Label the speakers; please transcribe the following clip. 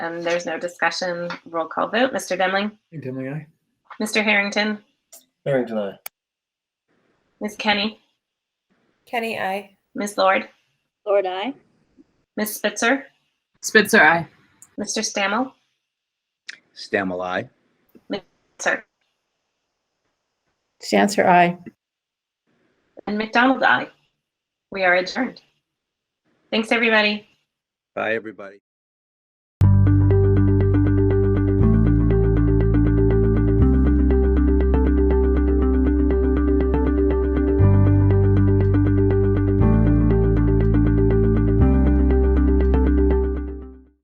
Speaker 1: Um, there's no discussion. Roll call vote. Mr. Demling,
Speaker 2: Dimly eye.
Speaker 1: Mr. Harrington,
Speaker 3: Harrington, aye.
Speaker 1: Ms. Kenny,
Speaker 4: Kenny, I.
Speaker 1: Ms. Lord,
Speaker 5: Lord, I.
Speaker 1: Ms. Spitzer,
Speaker 6: Spitzer, aye.
Speaker 1: Mr. Stammel,
Speaker 7: Stammel, aye.
Speaker 1: sir,
Speaker 4: Stanser, I.
Speaker 1: and McDonald, aye. We are adjourned. Thanks, everybody.
Speaker 7: Bye, everybody.